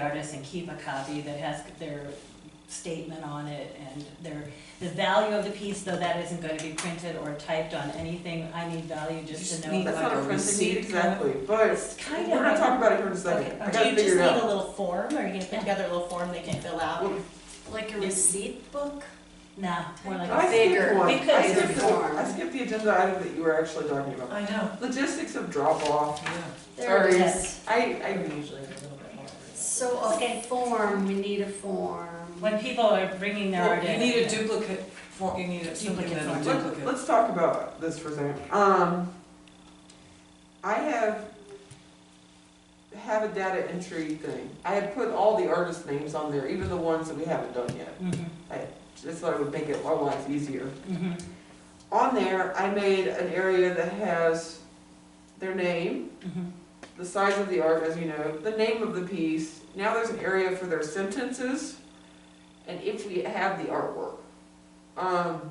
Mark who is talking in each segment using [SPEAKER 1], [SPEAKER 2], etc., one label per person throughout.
[SPEAKER 1] artists and keep a copy that has their statement on it and their, the value of the piece, though that isn't gonna be printed or typed on anything, I need value just to know.
[SPEAKER 2] need
[SPEAKER 1] what-
[SPEAKER 2] like
[SPEAKER 3] not
[SPEAKER 2] a
[SPEAKER 3] a front
[SPEAKER 2] receipt,
[SPEAKER 3] seat, kind of.
[SPEAKER 2] exactly, but
[SPEAKER 1] It's kind of.
[SPEAKER 2] we're not talking about it here in a
[SPEAKER 1] Okay,
[SPEAKER 2] second, I
[SPEAKER 1] okay.
[SPEAKER 2] gotta figure it
[SPEAKER 4] Do you just need a
[SPEAKER 2] out.
[SPEAKER 4] little form, or you can put together a little form they can fill out?
[SPEAKER 3] Like a
[SPEAKER 1] Yeah.
[SPEAKER 3] receipt book?
[SPEAKER 1] Nah, more like.
[SPEAKER 2] I
[SPEAKER 1] a
[SPEAKER 2] skipped
[SPEAKER 3] bigger-
[SPEAKER 2] one,
[SPEAKER 1] bigger
[SPEAKER 2] I skipped, the-
[SPEAKER 3] form.
[SPEAKER 2] I skipped the agenda item that you were actually talking about,
[SPEAKER 4] I know.
[SPEAKER 2] logistics of drop off,
[SPEAKER 3] There it
[SPEAKER 2] Sorry.
[SPEAKER 3] is.
[SPEAKER 2] I,
[SPEAKER 4] They're
[SPEAKER 2] I,
[SPEAKER 4] usually a little bit more.
[SPEAKER 3] So a form, we need a form.
[SPEAKER 1] When people are bringing their art
[SPEAKER 5] Well, you
[SPEAKER 1] in.
[SPEAKER 5] need a duplicate form, you need a
[SPEAKER 1] Duplicate
[SPEAKER 5] duplicate and a
[SPEAKER 1] form.
[SPEAKER 2] let-
[SPEAKER 5] duplicate.
[SPEAKER 2] let's talk about this for a second, um, I have, have a data entry thing, I had put all the artist names on there, even the ones that we haven't done yet,
[SPEAKER 1] Mhm,
[SPEAKER 2] just thought it would make it our lives easier.
[SPEAKER 1] mhm,
[SPEAKER 2] On there, I made an area that has their name,
[SPEAKER 1] mhm.
[SPEAKER 2] the size of the art, as you know, the name of the piece. Now there's an area for their sentences, and if we have the artwork. Um,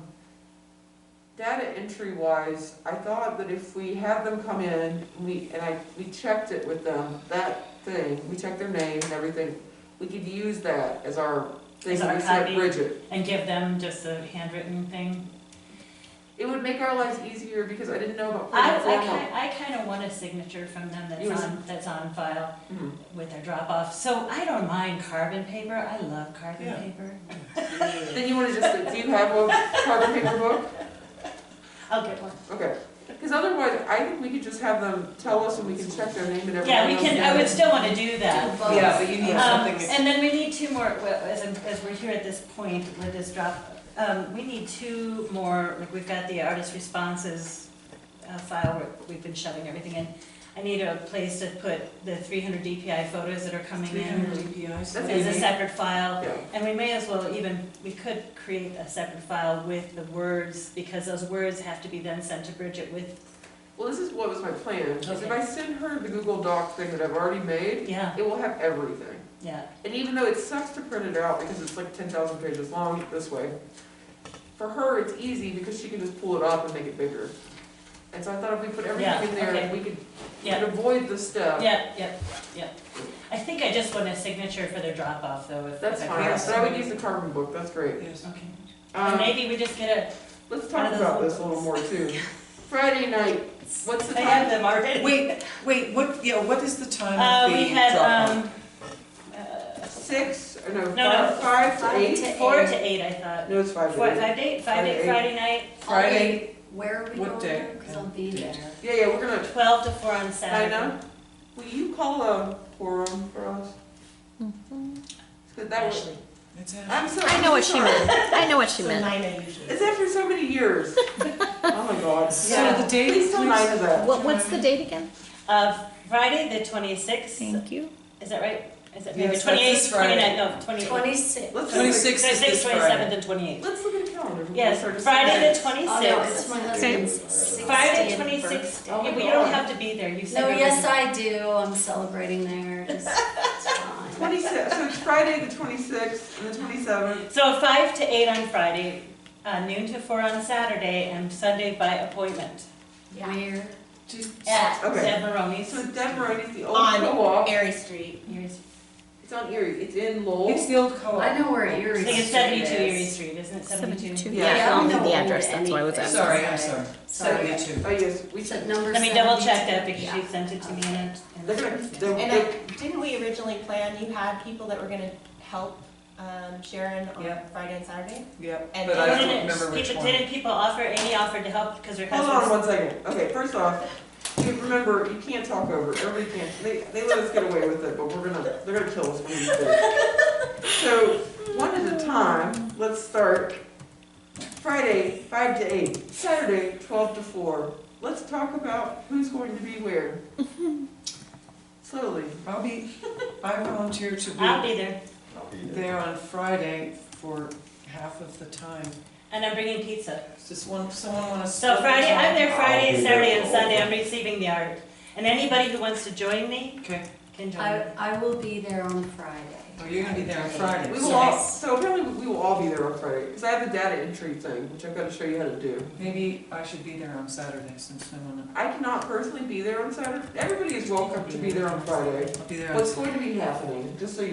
[SPEAKER 2] data entry wise, I thought that if we had them come in, we, and I, we checked it with them, that thing, we checked their name and everything, we could use that as our thing
[SPEAKER 1] As
[SPEAKER 2] that
[SPEAKER 1] our
[SPEAKER 2] we sent
[SPEAKER 1] copy?
[SPEAKER 2] Bridget.
[SPEAKER 1] And give them just a handwritten thing.
[SPEAKER 2] It would make our lives easier because I didn't know about.
[SPEAKER 1] I,
[SPEAKER 2] putting a
[SPEAKER 1] I
[SPEAKER 2] form
[SPEAKER 1] kind, I kind of want a signature from them
[SPEAKER 2] You
[SPEAKER 1] that's
[SPEAKER 2] want-
[SPEAKER 1] on, that's on file
[SPEAKER 2] on- Mhm.
[SPEAKER 1] with their drop off. So I don't mind carbon paper, I love carbon
[SPEAKER 5] Yeah.
[SPEAKER 1] paper.
[SPEAKER 2] Then you want to just, do you have a carbon paper book?
[SPEAKER 1] I'll get one.
[SPEAKER 2] Okay, because otherwise, I think we could just have them tell us and we can check their name and everything.
[SPEAKER 1] Yeah, we can, I would
[SPEAKER 2] else.
[SPEAKER 1] still want to do that.
[SPEAKER 3] Both.
[SPEAKER 5] Yeah, but you need
[SPEAKER 1] Um,
[SPEAKER 5] something, ex-
[SPEAKER 1] and then we need two more, well, as, I'm- as we're here at this point with this drop, um, we need two more, like, we've got the artist responses uh, file, where we've been shoving everything in. I need a place to put the three hundred DPI photos that are coming
[SPEAKER 5] three hundred
[SPEAKER 1] in
[SPEAKER 5] DPIs.
[SPEAKER 2] That's
[SPEAKER 1] as a
[SPEAKER 2] easy.
[SPEAKER 1] separate file.
[SPEAKER 2] Yeah,
[SPEAKER 1] And we may as well even, we could create a separate file with the words, because those words have to be then sent to Bridget with,
[SPEAKER 2] well, this is what was my plan, is if
[SPEAKER 1] Okay.
[SPEAKER 2] I send her the Google Doc thing that I've already made,
[SPEAKER 1] yeah,
[SPEAKER 2] it will have everything.
[SPEAKER 1] yeah.
[SPEAKER 2] And even though it sucks to print it out because it's like ten thousand pages long this way, for her, it's easy because she can just pull it up and make it bigger. And so I thought if we put
[SPEAKER 1] Yeah,
[SPEAKER 2] everything in there,
[SPEAKER 1] okay.
[SPEAKER 2] we could, we
[SPEAKER 1] Yeah.
[SPEAKER 2] could avoid the step.
[SPEAKER 1] Yep, yep, yep. I think I just want a signature for their drop off though, if.
[SPEAKER 2] That's
[SPEAKER 1] if I
[SPEAKER 2] fine,
[SPEAKER 1] could.
[SPEAKER 5] Yes.
[SPEAKER 2] but I would use the carbon book, that's great.
[SPEAKER 5] Yes.
[SPEAKER 1] Okay, and
[SPEAKER 2] Um,
[SPEAKER 1] maybe we just get
[SPEAKER 2] let's talk
[SPEAKER 1] One of those
[SPEAKER 2] about this a little
[SPEAKER 1] little
[SPEAKER 2] more too. Friday night, what's the
[SPEAKER 1] a, I have
[SPEAKER 2] time?
[SPEAKER 1] them already.
[SPEAKER 5] Wait, wait, what, yeah, what is the time
[SPEAKER 1] Uh,
[SPEAKER 5] of
[SPEAKER 1] we
[SPEAKER 5] the
[SPEAKER 1] had,
[SPEAKER 5] drop off?
[SPEAKER 1] um, uh,
[SPEAKER 2] Six, or no,
[SPEAKER 1] No,
[SPEAKER 2] five,
[SPEAKER 1] no.
[SPEAKER 2] five to
[SPEAKER 3] Five
[SPEAKER 2] eight?
[SPEAKER 3] to-
[SPEAKER 1] four to eight, I thought.
[SPEAKER 2] No, it's five
[SPEAKER 1] Four,
[SPEAKER 2] to eight.
[SPEAKER 1] five to eight, five to eight,
[SPEAKER 2] Friday.
[SPEAKER 1] Friday night,
[SPEAKER 5] Friday,
[SPEAKER 3] Where are we
[SPEAKER 5] What
[SPEAKER 3] going
[SPEAKER 5] day?
[SPEAKER 3] there? Because I'll be there.
[SPEAKER 2] Yeah, yeah, we're gonna,
[SPEAKER 1] twelve to four on Saturday.
[SPEAKER 2] Dinah, will you call a quorum for us? 'Cause that was-
[SPEAKER 1] Ashley.
[SPEAKER 5] it's at,
[SPEAKER 2] I'm so,
[SPEAKER 6] I know what she
[SPEAKER 2] sorry.
[SPEAKER 6] meant. I know what she
[SPEAKER 4] So
[SPEAKER 6] meant.
[SPEAKER 4] Nina usually.
[SPEAKER 2] It's after so many years. Oh my god.
[SPEAKER 5] so
[SPEAKER 1] Yeah.
[SPEAKER 5] the date,
[SPEAKER 2] Please tell Nina
[SPEAKER 5] please,
[SPEAKER 2] that.
[SPEAKER 6] What, what's the date again?
[SPEAKER 1] Uh, Friday, the twenty-sixth, is
[SPEAKER 6] Thank you.
[SPEAKER 1] that right? Is it maybe
[SPEAKER 5] Yes, that's this
[SPEAKER 1] twenty-eighth,
[SPEAKER 5] Friday.
[SPEAKER 1] twenty-ninth, no, twenty-eighth.
[SPEAKER 3] Twenty-six.
[SPEAKER 2] Let's look at-
[SPEAKER 5] twenty-sixth is this
[SPEAKER 1] Twenty-seventh
[SPEAKER 5] Friday.
[SPEAKER 1] and twenty-eighth.
[SPEAKER 2] Let's look at the calendar. before we start
[SPEAKER 1] Yes,
[SPEAKER 2] to-
[SPEAKER 1] Friday, the
[SPEAKER 3] Oh, no, it's
[SPEAKER 1] twenty-sixth.
[SPEAKER 3] my
[SPEAKER 6] Okay.
[SPEAKER 3] husband's sixtieth
[SPEAKER 1] Friday,
[SPEAKER 3] birthday.
[SPEAKER 1] twenty-sixth,
[SPEAKER 2] Oh my
[SPEAKER 1] we don't
[SPEAKER 2] God.
[SPEAKER 1] have to be there, you said.
[SPEAKER 3] No,
[SPEAKER 1] we're
[SPEAKER 3] yes,
[SPEAKER 1] gonna-
[SPEAKER 3] I do. I'm celebrating there. It's it's fine.
[SPEAKER 2] Twenty-six, so it's Friday, the twenty-sixth, and the twenty-seventh.
[SPEAKER 1] So five to eight on Friday, uh, noon to four on Saturday, and Sunday by appointment
[SPEAKER 3] Where?
[SPEAKER 1] at
[SPEAKER 2] Okay.
[SPEAKER 1] Deb Maroney's.
[SPEAKER 2] So Denver, it's the old co-op.
[SPEAKER 4] On Erie Street.
[SPEAKER 1] Erie-
[SPEAKER 2] It's on Erie. It's in
[SPEAKER 5] It's
[SPEAKER 2] Lowell.
[SPEAKER 5] the old co-op.
[SPEAKER 3] I know where Erie
[SPEAKER 1] I
[SPEAKER 3] Street
[SPEAKER 1] think
[SPEAKER 3] is.
[SPEAKER 1] it's seventy-two Erie Street, isn't it, seventy-two?
[SPEAKER 6] 72.
[SPEAKER 2] Yeah,
[SPEAKER 6] Yeah, I
[SPEAKER 3] I'll
[SPEAKER 6] only knew
[SPEAKER 3] know
[SPEAKER 6] the address,
[SPEAKER 3] old
[SPEAKER 6] that's why I was
[SPEAKER 3] anything.
[SPEAKER 6] asking.
[SPEAKER 5] Sorry, I'm sorry,
[SPEAKER 3] Sorry.
[SPEAKER 5] seventy-two.
[SPEAKER 2] Oh yes, we
[SPEAKER 3] It's
[SPEAKER 2] should.
[SPEAKER 3] at number
[SPEAKER 1] Let me double check
[SPEAKER 3] 72.
[SPEAKER 1] that because she
[SPEAKER 3] Yeah.
[SPEAKER 1] sent it to me and.
[SPEAKER 2] They're gonna, they're,
[SPEAKER 4] And I, didn't we originally plan, you had people that were gonna help um, Sharon on
[SPEAKER 5] Yep.
[SPEAKER 4] Friday and Saturday?
[SPEAKER 5] Yep,
[SPEAKER 4] And
[SPEAKER 5] but I
[SPEAKER 4] then-
[SPEAKER 5] don't remember which
[SPEAKER 1] People-
[SPEAKER 5] one.
[SPEAKER 1] Didn't people offer, Amy offered to help because her
[SPEAKER 2] hold on
[SPEAKER 1] husband's.
[SPEAKER 2] one second. Okay, first off, you remember you can't talk over. Everybody can't. They, they let us get away with it, but we're gonna they're gonna kill us when we do. So one at a time. Let's start. Friday, five to eight. Saturday, twelve to four. Let's talk about who's going to be where. Slowly.
[SPEAKER 5] I'll be, I volunteer to
[SPEAKER 1] I'll
[SPEAKER 5] be
[SPEAKER 1] be there,
[SPEAKER 5] there on Friday for half of the time.
[SPEAKER 1] and I'm bringing pizza.
[SPEAKER 5] Does one, someone wanna?
[SPEAKER 1] So Friday, I'm there
[SPEAKER 7] I'll
[SPEAKER 1] Friday,
[SPEAKER 7] be
[SPEAKER 1] Saturday,
[SPEAKER 7] there.
[SPEAKER 1] and Sunday, I'm receiving the art. And anybody who wants to join me
[SPEAKER 5] Okay,
[SPEAKER 1] can join
[SPEAKER 3] I,
[SPEAKER 1] me.
[SPEAKER 3] I will be there on Friday.
[SPEAKER 5] oh, you're gonna be there on Friday.
[SPEAKER 2] We
[SPEAKER 5] so
[SPEAKER 2] will all, so apparently we will all be there on Friday, because I have a data entry thing, which I've got to show you how to do.
[SPEAKER 5] Maybe I should be there on Saturday since no one,
[SPEAKER 2] I cannot personally be there on Saturday, everybody is welcome to be there on Friday.
[SPEAKER 5] I'll be there on
[SPEAKER 2] What's going to be happening, just so you